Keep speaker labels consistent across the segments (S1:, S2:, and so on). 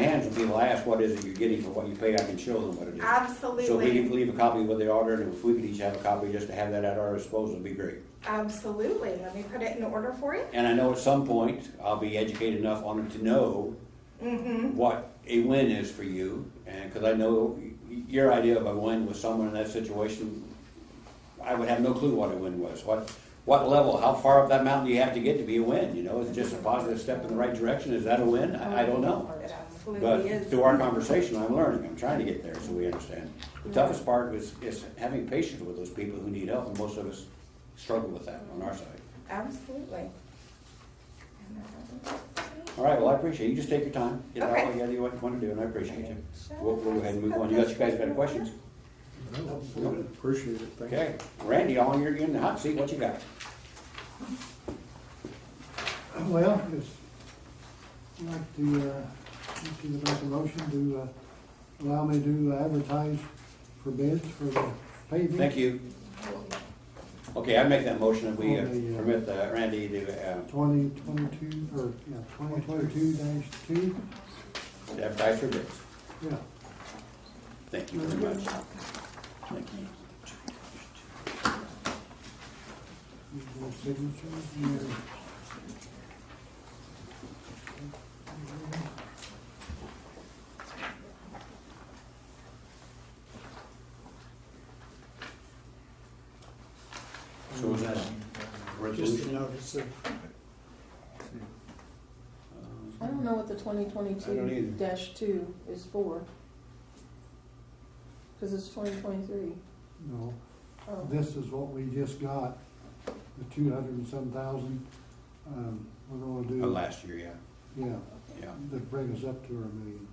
S1: and people ask, what is it you're getting for what you pay, I can show them what it is. So if we can
S2: Absolutely,
S1: leave a copy with the auditor, and if we could each have a copy, just to have that at our disposal, would be great.
S2: absolutely. Let me put it in order for you.
S1: And I know at some point, I'll be educated enough on it to know
S2: Mm-hmm.
S1: what a win is for you, and, because I know y- your idea of a win with someone in that situation, I would have no clue what a win was, what, what level, how far up that mountain do you have to get to be a win, you know, is it just a positive step in the right direction, is that a win? I, I don't know. But
S2: It absolutely is.
S1: through our conversation, I'm learning, I'm trying to get there, so we understand. The toughest part is, is having patience with those people who need help, and most of us struggle with that on our side.
S2: Absolutely. And I don't think
S1: All right, well, I appreciate it, you just take your time, get out what
S2: Okay.
S1: you gotta do, what you wanna do, and I appreciate you.
S2: that's-
S1: We'll, we'll go ahead and move on, you guys, you guys got any questions?
S3: Appreciate it, thank you.
S1: Okay, Randy, all you're in the hot seat, what you got?
S3: Well, it's, I'd like to, uh, to make a motion to, uh, allow me to advertise for bids for the paving.
S1: Thank you. Okay, I make that motion that we uh,
S3: On the, uh,
S1: permit uh, Randy to uh,
S3: Twenty twenty-two, or, yeah, twenty twenty-two dash two,
S1: to advertise for bids.
S3: yeah.
S1: Thank you very much. Thank you.
S3: Need more signatures, and-
S1: So is that a
S4: Just a
S1: resolution?
S4: notice of,
S1: Uh,
S5: I don't know what the twenty
S1: I don't
S5: twenty-two
S1: either.
S5: dash two is for. Cause it's twenty twenty-three.
S3: No,
S5: Oh,
S3: this is what we just got, the two hundred and some thousand, um, we're gonna
S1: Uh,
S3: do.
S1: Last year, yeah,
S3: Yeah.
S1: yeah.
S3: that bring us up to our million.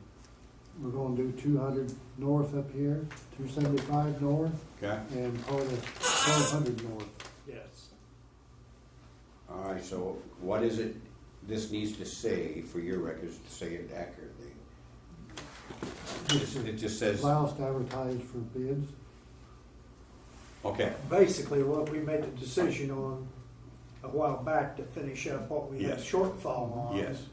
S3: We're gonna do two hundred north up here, two seventy-five north,
S1: Okay,
S3: and part of twelve hundred north.
S4: yes.
S1: all right, so what is it this needs to say for your records to say it accurately?
S3: This
S1: It
S3: is
S1: just says,
S3: Allow us to advertise for bids,
S1: okay,
S4: Basically, what we made the decision on a while back to finish up what we had
S1: Yes.
S4: shortfall on.
S1: yes.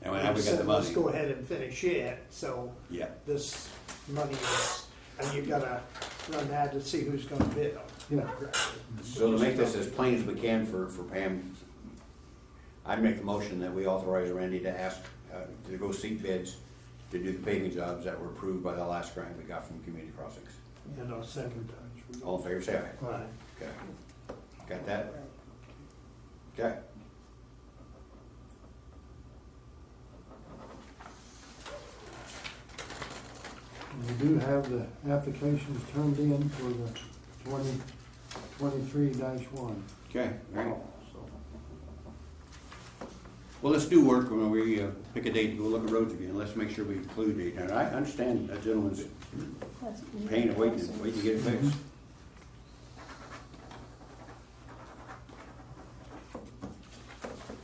S1: And now we got the
S4: um, said, Let's
S1: money,
S4: go ahead and finish it, so
S1: yeah.
S4: this money is, and you gotta run that to see who's gonna bid on. it.
S3: yeah.
S1: So to make this as plain as we can for, for Pam, I'd make the motion that we authorize Randy to ask, uh, to go seek bids to do the paving jobs that were approved by the last grant we got from Community Crossings.
S4: And I'll second
S3: advertise.
S1: All in favor, say aye.
S4: that. All right.
S1: Okay. Got that? Okay.
S3: And We do have the applications turned in for the twenty, twenty-three dash one.
S1: Okay, all right.
S3: So,
S1: Well, let's do work when we uh, pick a date to go look at roads again. Let's make sure we include it. And I understand that gentleman's
S5: that's.
S1: pain of waiting, waiting to get it fixed. I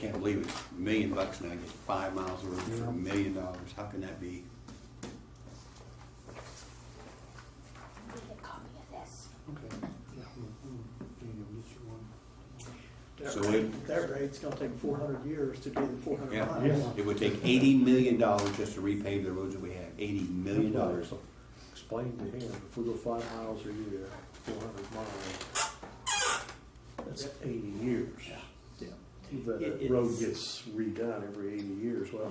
S1: can't believe it's a million bucks now, get five miles of road for
S3: Yeah.
S1: a million dollars. How can that be?
S3: okay. Yeah, we'll- we'll be able to get you one.
S4: That
S1: So
S4: rate-
S1: it-
S4: That rate's gonna take four hundred years to do the four hundred miles.
S1: Yeah, it would take eighty million dollars just to repave the roads that we have, eighty million dollars.
S6: Explain to him, if we go five miles a year, four hundred miles, that's eighty years.
S4: Yeah.
S6: The
S4: It-
S6: road
S4: it's-
S6: gets redone every eighty years, well,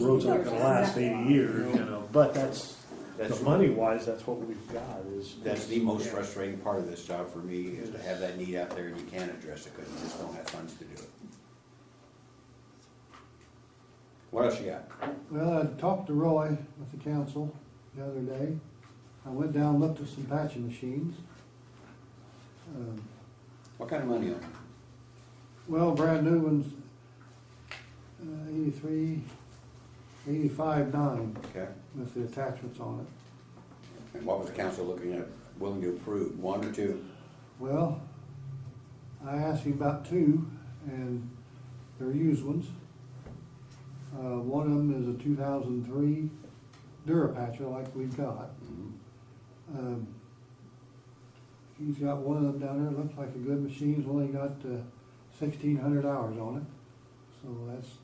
S6: road's not gonna last eighty years, you know, but that's, the
S1: That's,
S6: money wise, that's what we've got is.
S1: that's the most frustrating part of this job for me, is to have that need out there and you can't address it because you just don't have funds to do it. What else you got?
S3: Well, I talked to Roy with the council the other day. I went down, and looked at some patching machines. Um,
S1: What kind of money on it?
S3: Well, brand new ones, uh, eighty-three, eighty-five, nine
S1: Okay,
S3: with the attachments on it.
S1: and what was the council looking at, willing to approve, one or two?
S3: Well, I asked him about two and they're used ones. Uh, one of them is a two thousand three Durapatcher like we've got.
S1: Mhm.
S3: Um, he's got one of them down uh, there, looks like a good machine, it's only got sixteen hundred hours on it, so that's